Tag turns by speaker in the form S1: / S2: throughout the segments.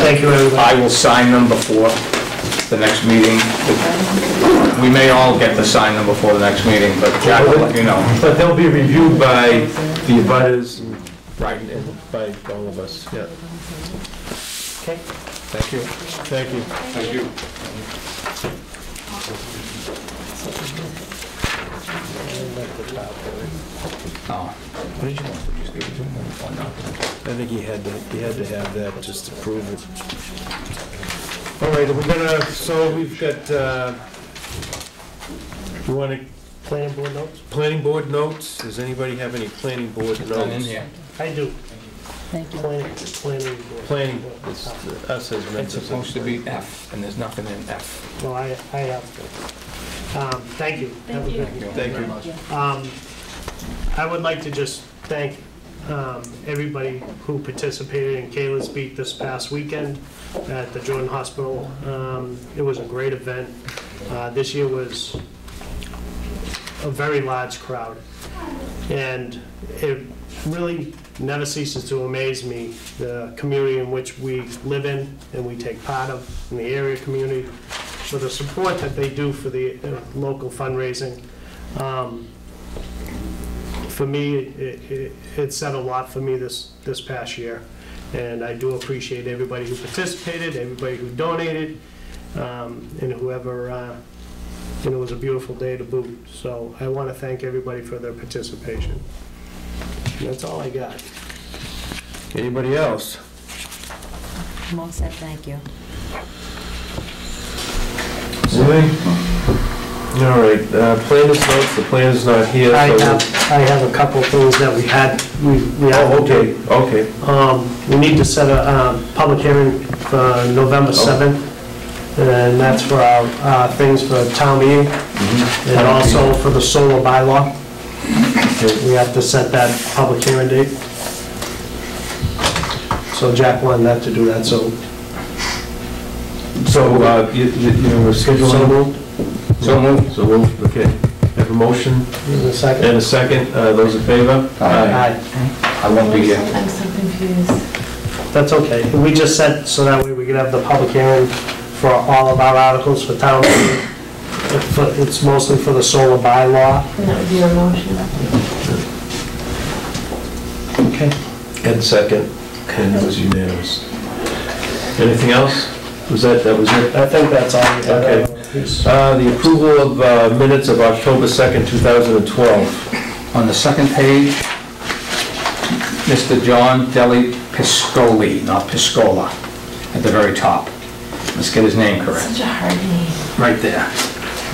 S1: Thank you, everyone.
S2: I will sign them before the next meeting. We may all get to sign them before the next meeting, but Jack will let you know.
S1: But they'll be reviewed by the abutters and
S2: Right.
S1: and by all of us, yeah. Okay.
S2: Thank you.
S1: Thank you.
S2: Thank you. Oh. What did you want? Did you Oh, just give it to him or not?
S1: I think he had to, he had to have that just to prove it. All right, we're gonna, so we've got, uh, you wanna? Planning board notes? Planning board notes, does anybody have any planning board notes?
S2: Done in here.
S3: I do.
S4: Thank you.
S3: Planning, planning board.
S1: Planning, it's us as
S2: It's
S1: members. of-
S2: supposed to be F, and there's nothing in F.
S3: No, I, I have to. Um, Thank you. Have a good
S2: you.
S1: Thank you.
S3: Um, I would like to just thank um, everybody who participated in Kayla's Beat this past weekend at the Jordan Hospital. Um, It was a great event. Uh, This year was a very large crowd. And it really never ceases to amaze me, the community in which we live in and we take part of, in the area community, for the support that they do for the uh, local fundraising. Um, For me, it- it it said a lot for me this, this past year, and I do appreciate everybody who participated, everybody who donated, um, and whoever, uh, and it was a beautiful day to boot. So I want to thank everybody for their participation. That's all I got.
S1: Anybody else?
S4: I'm all set, thank you.
S1: Really? All right, uh, planner's notes, the planner's not here.
S3: I
S1: so-
S3: have, I have a couple things that we had, we we have.
S1: Oh, okay, okay.
S3: Um, We need to set a um, public hearing for November 7th, and that's for our uh, things for town meeting, and also for the solar bylaw. We have to set that public hearing date. So Jack wanted that to do that, so.
S1: So, uh, you, you you know, we're
S3: So
S1: scheduling.
S3: moved.
S1: So moved. So moved, okay. Have a motion
S3: Is there a second?
S1: and a second, uh, those in favor?
S3: Aye.
S2: I won't be here.
S5: I'm so confused.
S3: That's okay. We just set, so that way we could have the public hearing for all of our articles for town meeting. For- It's mostly for the solar bylaw.
S5: And that would be your motion.
S3: Okay.
S1: And second, and it was unanimous. Anything else? Was that, that was it?
S3: I think that's all we have.
S1: Okay. Uh, the approval of uh, minutes of October 2nd, 2012.
S2: On the second page, Mr. John Deli Piscoli, not Piscola, at the very top. Let's get his name correct.
S5: Such a hard name.
S2: Right there.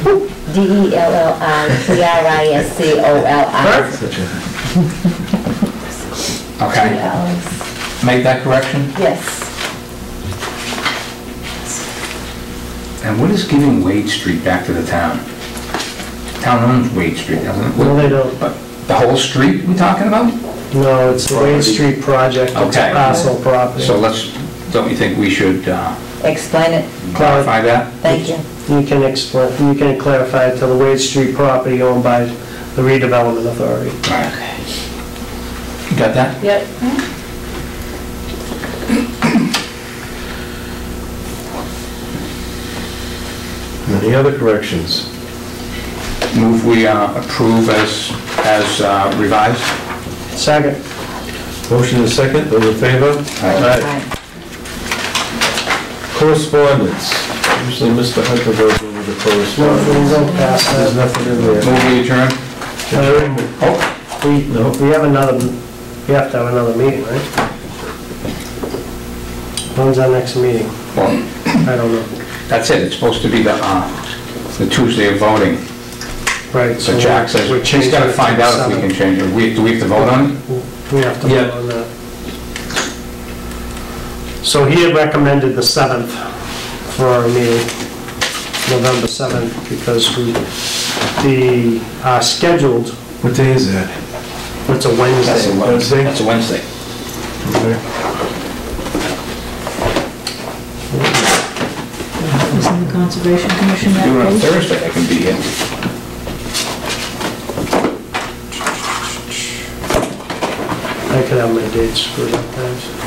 S4: E D-E-L-L-I-P-R-I-S-C-O-L-I.
S5: Two
S2: Okay,
S5: L's.
S2: make that correction.
S5: Yes.
S2: And what is giving Wade Street back to the town? Town owns Wade Street, doesn't it?
S3: No, they don't.
S2: But the whole street we talking about?
S3: No, it's the Wade Street project, it's
S2: Okay.
S3: a parcel property.
S2: So let's, don't you think we should uh,
S4: Explain it,
S2: clarify that?
S4: thank you.
S3: You can explain, you can clarify it to the Wade Street property owned by the redevelopment authority.
S2: Okay. You got that?
S5: Yep.
S1: Any other corrections?
S2: Move we uh, approve as as uh, revised?
S3: Second,
S1: Motion is second, those in favor? Correspondence. Usually Mr. Hunter goes over the
S3: no, we
S1: correspondence.
S3: don't pass
S1: There's
S3: that.
S1: nothing in there.
S2: Move we adjourn?
S1: Adjournment.
S2: Oh,
S3: We, we have another, we have to have another meeting, right? When's our next meeting?
S2: well,
S3: I don't know.
S2: that's it, it's supposed to be the, uh, the Tuesday of voting.
S3: Right.
S2: So Jack says,
S3: we're
S2: he's gotta
S3: changing it to
S2: find out if we
S3: seven.
S2: can change it. We, do we have to vote on it?
S3: We have to
S1: Yeah.
S3: vote on that. So he had recommended the 7th for our meeting, November 7th, because we, the, uh, scheduled,
S1: What day is that?
S3: it's
S2: That's
S3: a
S2: a
S3: Wednesday.
S1: Wednesday?
S2: That's a Wednesday.
S1: Okay.
S5: Isn't the Conservation Commission
S2: Do it on Thursday, I can be here.
S3: I could have my dates for that, guys.